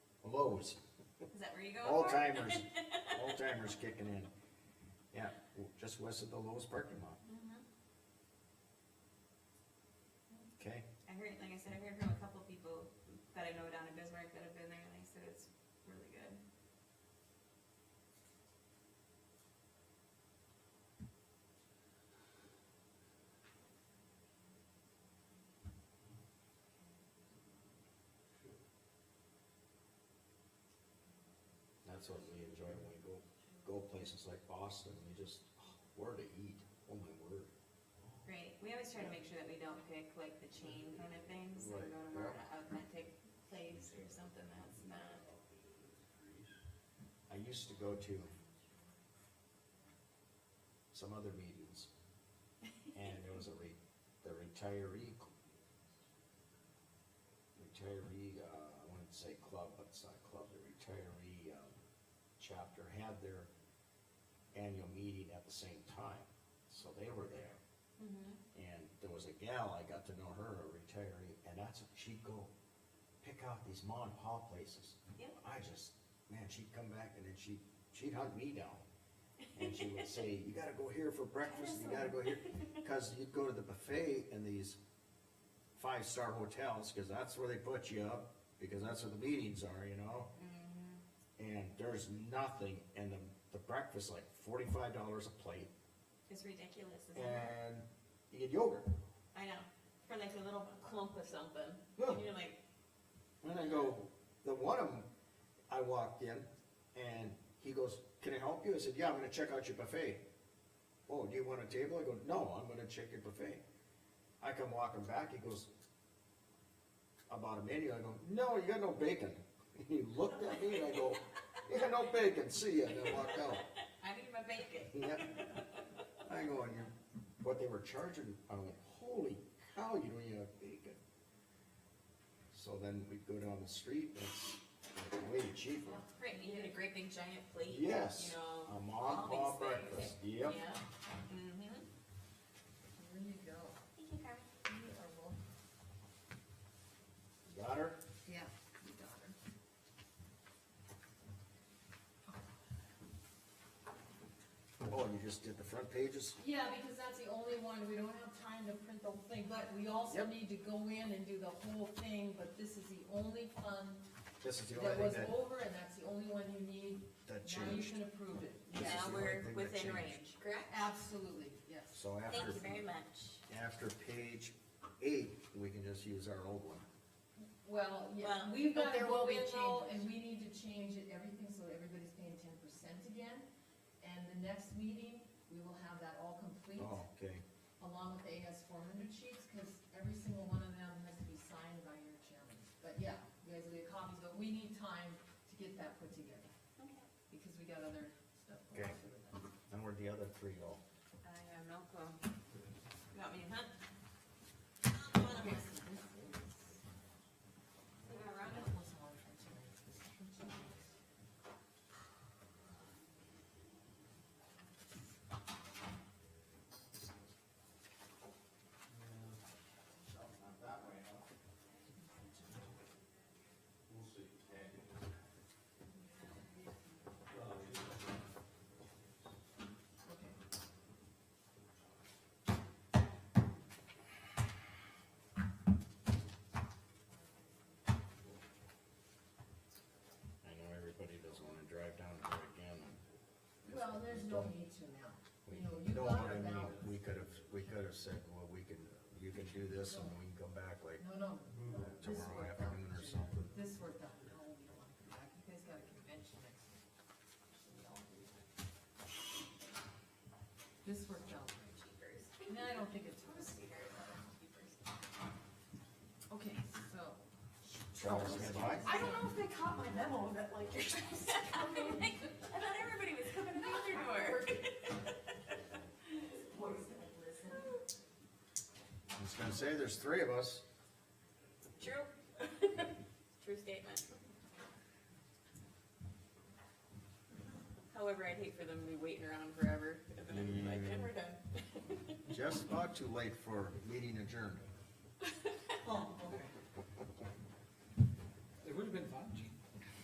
lows, Is that where you go? old timers, old timers kicking in. Yeah, w- just west of the Lowe's parking lot, Mm-hmm. okay? I heard, like I said, I heard from a couple people that I know down in Bismarck that have been there, and they said it's really good. That's what we enjoy when we go, go places like Boston, we just, oh, where to eat, oh my word. Great, we always try to make sure that we don't pick like the chain kind of things, and Right, go to more of yeah. an authentic place or something that's not. I used to go to some other meetings, and there was a re, the retiree cl- retiree, uh, I wouldn't say club, but it's not a club, the retiree, um, chapter had their annual meeting at the same time, so they were there. Mm-hmm. And there was a gal, I got to know her, a retiree, and that's, she'd go pick out these mom and pop places. Yep. I just, man, she'd come back and then she, she'd hunt me down. And she would say, you gotta go here for breakfast, you gotta go here, cause you'd go to the buffet in these five-star hotels, cause that's where they put you up, because that's where the meetings are, you know? And there's nothing, and the, the breakfast, like forty-five dollars a plate, It's ridiculous, isn't it? and you get yogurt. I know, for like a little clump of something, Yeah. and you're like, And I go, the one of them, I walked in and he goes, can I help you? I said, yeah, I'm gonna check out your buffet. Oh, do you want a table? I go, no, I'm gonna check your buffet. I come walking back, he goes, about a menu, I go, no, you got no bacon. And he looked at me and I go, you got no bacon, see ya, and I walked out. I need my bacon. Yeah. I go, and you, what they were charging, I'm like, holy cow, you don't even have bacon. So then we'd go down the street, that's like way cheaper. That's great, you get a great big giant plate. Yes, You know. a all uh, mom these pop things. breakfast, Yeah. yep. Mm-hmm. There you go. Thank you, Carmen. You are wel- Got her? Yeah, you got her. Oh, you just did the front pages? Yeah, because that's the only one, we don't have time to print the whole thing, but we also Yep. need to go in and do the whole thing, but this is the only fund This is the that only was thing that, over, and that's the only one you need. that Now you changed. can approve it. This is Now the only we're thing that within changed. range, correct? Absolutely, yes. So Thank after, you very much. after page eight, we can just use our old one. Well, yeah, Well, we've but got to there will go be in though, changes. and we need to change it, everything, so everybody's paying ten percent again. And the next meeting, we will have that all complete. Oh, okay. along with the AS four hundred sheets, because every single one of them has to be signed by your chairman. But yeah, you guys will get copies, but we need time to get that put together, Okay. because we got other stuff. Okay. And where'd the other three go? I have no clue. You want me to hunt? Come on, I'm gonna- You gonna run it? I know everybody doesn't wanna drive down there again. Well, there's no need to now, We you know, you know got what I it mean. now. We could've, we could've said, well, we can, you can do this and we can come back like No, no. no, this Mm. tomorrow worked out. afternoon or something. This worked out, no, we don't wanna come back, you guys got a convention next week. So we all do that. This worked out, Jeepers. and I don't think it's, Jeepers. okay, so. Travis, you got mine? I don't know if they caught my memo that like you're supposed to come in. I thought everybody was coming to the your door. I was gonna say, there's three of us. True. True statement. However, I'd hate for them to be waiting around forever, and then I'd be like, and we're done. Just about too late for meeting adjourned.